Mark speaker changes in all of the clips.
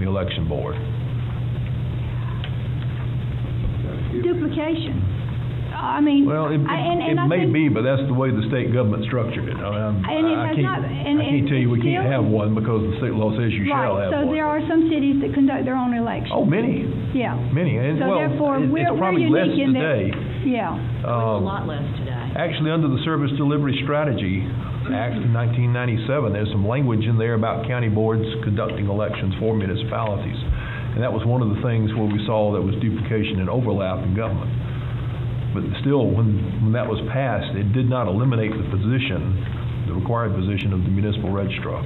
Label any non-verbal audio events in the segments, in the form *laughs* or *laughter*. Speaker 1: the election board.
Speaker 2: duplication. I mean,
Speaker 1: Well, it,
Speaker 2: I- and,
Speaker 1: it
Speaker 2: and I
Speaker 1: may
Speaker 2: think,
Speaker 1: be, but that's the way the state government structured it. I mean, I'm-
Speaker 2: And it
Speaker 1: I- I
Speaker 2: has
Speaker 1: can't-
Speaker 2: not- and-
Speaker 1: I can't
Speaker 2: and
Speaker 1: tell you we can't
Speaker 2: still-
Speaker 1: have one because the state law says you shall
Speaker 2: right,
Speaker 1: have
Speaker 2: so
Speaker 1: one.
Speaker 2: there are some cities that conduct their own elections.
Speaker 1: Oh, many,
Speaker 2: Yeah,
Speaker 1: many, and
Speaker 2: So
Speaker 1: well,
Speaker 2: therefore,
Speaker 1: it-
Speaker 2: we're-
Speaker 1: it's
Speaker 2: we're
Speaker 1: probably less
Speaker 2: unique in that-
Speaker 1: today.
Speaker 2: yeah.
Speaker 3: a
Speaker 1: Um,
Speaker 3: lot less today.
Speaker 1: Actually, under the Service Delivery Strategy Act of 1997, there's some language in there about county boards conducting elections for municipalities. And that was one of the things where we saw there was duplication and overlap in government. But still, when, when that was passed, it did not eliminate the position, the required position of the municipal registrar.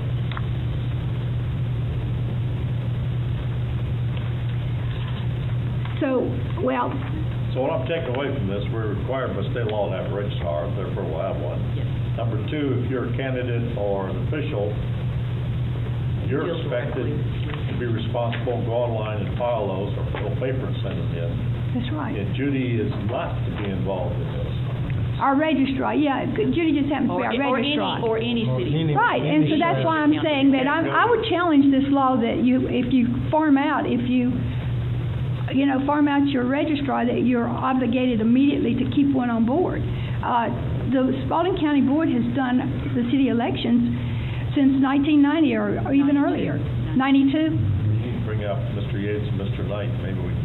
Speaker 2: So, well,
Speaker 4: So what I'm taking away from this, we're required by state law to have a registrar, therefore we'll have one.
Speaker 3: Yes.
Speaker 4: Number two, if you're a candidate or an official, you're
Speaker 3: Deal
Speaker 4: expected
Speaker 3: directly.
Speaker 4: to be responsible, go online and file those or fill paper and send them in.
Speaker 2: that's right.
Speaker 4: And Judy is not to be involved in this.
Speaker 2: Our registrar, yeah, Judy just happens to be
Speaker 3: Or,
Speaker 2: our
Speaker 3: or any,
Speaker 2: registrar.
Speaker 3: or any city.
Speaker 2: Right, and so that's why I'm saying that I'm, I would challenge this law that you, if you farm out, if you, you know, farm out your registrar, that you're obligated immediately to keep one on board. Uh, the Spalding County Board has done the city elections since nineteen ninety or, or even
Speaker 3: 92.
Speaker 2: earlier. Ninety-two,
Speaker 4: We need to bring up Mr. Yates and Mr. Knight, maybe we can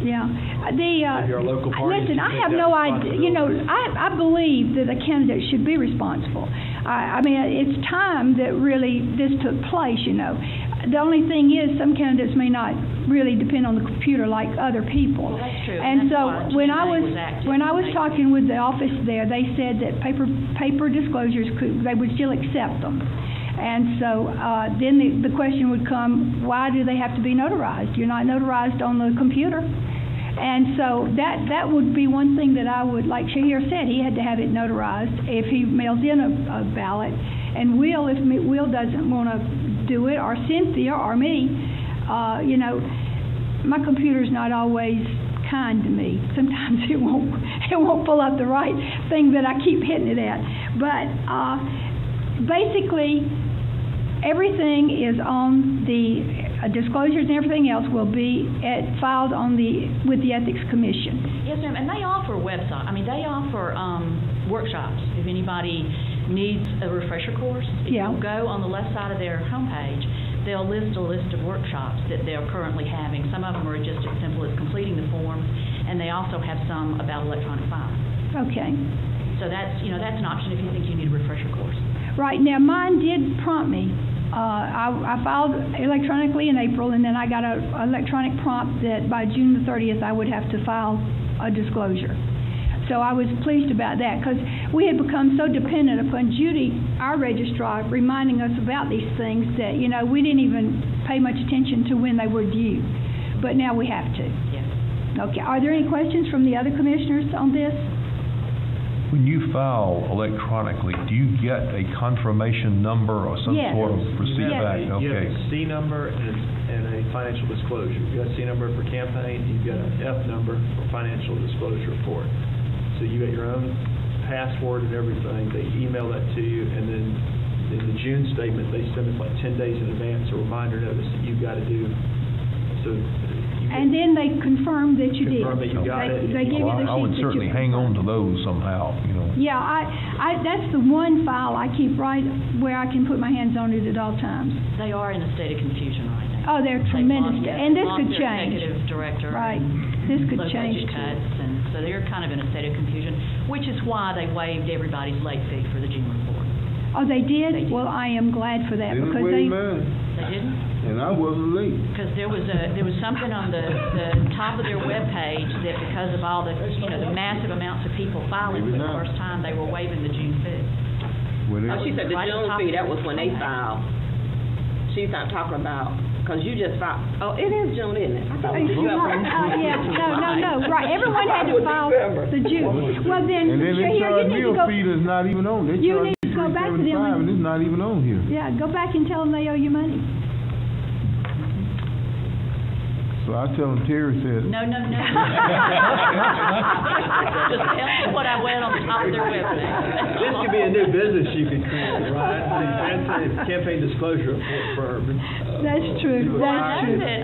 Speaker 2: yeah. Uh, The, uh.
Speaker 5: Maybe our local parties
Speaker 2: Listen,
Speaker 5: should
Speaker 2: I
Speaker 5: take
Speaker 2: have
Speaker 5: that
Speaker 2: no idea, you know,
Speaker 5: responsibility.
Speaker 2: I, I believe that a candidate should be responsible. I, I mean, it's time that really this took place, you know. The only thing is, some candidates may not really depend on the computer like other people.
Speaker 3: Well, that's true,
Speaker 2: And
Speaker 3: and that's
Speaker 2: so,
Speaker 3: why
Speaker 2: when I
Speaker 3: Tuesday
Speaker 2: was,
Speaker 3: was active.
Speaker 2: when I was talking with the office there, they said that paper, paper disclosures could, they would still accept them. And so, uh, then the, the question would come, why do they have to be notarized? You're not notarized on the computer. And so that, that would be one thing that I would, like Shahir said, he had to have it notarized if he mails in a, a ballot. And Will, if me- Will doesn't want to do it, or Cynthia, or me, uh, you know, my computer's not always kind to me. Sometimes it won't, *laughs* it won't pull up the right thing that I keep hitting it at. But, uh, basically, everything is on the, uh, disclosures and everything else will be at, filed on the, with the Ethics Commission.
Speaker 3: Yes, ma'am, and they offer website, I mean, they offer, um, workshops, if anybody needs a refresher course.
Speaker 2: Yeah.
Speaker 3: If you go on the left side of their homepage, they'll list a list of workshops that they're currently having. Some of them are just as simple as completing the forms, and they also have some about electronic filing.
Speaker 2: Okay.
Speaker 3: So that's, you know, that's an option if you think you need a refresher course.
Speaker 2: Right, now mine did prompt me. Uh, I, I filed electronically in April and then I got a electronic prompt that by June the thirtieth, I would have to file a disclosure. So I was pleased about that because we had become so dependent upon Judy, our registrar, reminding us about these things that, you know, we didn't even pay much attention to when they were due. But now we have to.
Speaker 3: Yes.
Speaker 2: Okay, are there any questions from the other commissioners on this?
Speaker 1: When you file electronically, do you get a confirmation number or some
Speaker 2: Yes.
Speaker 1: sort of receipt
Speaker 2: Yes.
Speaker 1: back?
Speaker 5: You have
Speaker 1: Okay.
Speaker 5: a C number and a, and a financial disclosure. You've got a C number for campaign, you've got an F number for financial disclosure report. So you got your own password and everything, they email that to you, and then in the June statement, they send us like ten days in advance, a reminder notice that you've got to do, so. you
Speaker 2: And then they confirmed that you did.
Speaker 5: Confirm that you got
Speaker 2: They-
Speaker 5: it.
Speaker 2: They give you
Speaker 1: Well,
Speaker 2: the sheets
Speaker 1: I- I would
Speaker 2: that you
Speaker 1: certainly hang on to those somehow, you know.
Speaker 2: Yeah, I, I, that's the one file I keep right where I can put my hands on it at all times.
Speaker 3: They are in a state of confusion right now.
Speaker 2: Oh, they're
Speaker 3: They've
Speaker 2: tremendous,
Speaker 3: lost-
Speaker 2: and this
Speaker 3: lost
Speaker 2: could
Speaker 3: their
Speaker 2: change.
Speaker 3: Executive director.
Speaker 2: Right,
Speaker 3: and
Speaker 2: this could
Speaker 3: low
Speaker 2: change
Speaker 3: budget
Speaker 2: too.
Speaker 3: cuts, and so they're kind of in a state of confusion, which is why they waived everybody's late fee for the June report.
Speaker 2: Oh, they
Speaker 3: They
Speaker 2: did?
Speaker 3: did.
Speaker 2: Well, I am glad for that
Speaker 6: They was
Speaker 2: because
Speaker 6: way
Speaker 2: they,
Speaker 6: mine,
Speaker 3: They didn't,
Speaker 6: and I wasn't late.
Speaker 3: because there was a, there was something on the, the top of their webpage that because of all the, you know, the massive amounts of people filing for
Speaker 6: Maybe
Speaker 3: the
Speaker 6: not.
Speaker 3: first time, they were waiving the June fee.
Speaker 6: Well,
Speaker 7: Oh,
Speaker 6: they-
Speaker 7: she said the
Speaker 3: Right
Speaker 7: June
Speaker 3: top-
Speaker 7: fee, that was when they filed. She's not talking about, because you just filed, oh, it is June, isn't it? I thought we
Speaker 2: Oh,
Speaker 7: just got one.
Speaker 2: yeah, no, no, no, right, everyone had to
Speaker 7: It was
Speaker 2: file
Speaker 7: December.
Speaker 2: the June. Well, then,
Speaker 6: And then they
Speaker 2: Shahir, you
Speaker 6: charge
Speaker 2: need
Speaker 6: me
Speaker 2: to
Speaker 6: a
Speaker 2: go,
Speaker 6: fee that's not even on, they
Speaker 2: You
Speaker 6: charge
Speaker 2: need
Speaker 6: me
Speaker 2: to go
Speaker 6: three
Speaker 2: back to them
Speaker 6: seventy-five,
Speaker 2: and-
Speaker 6: and it's not even on here.
Speaker 2: yeah, go back and tell them they owe you money.
Speaker 6: So I tell them, Terry said,
Speaker 3: No, no, no.
Speaker 6: *laughs*
Speaker 3: Just tell me what I went on the top of their webpage.
Speaker 5: This could be a new business you could create, right? The campaign- Campaign disclosure report for, uh,
Speaker 2: That's true, that's
Speaker 5: Well, I
Speaker 2: true.
Speaker 5: know that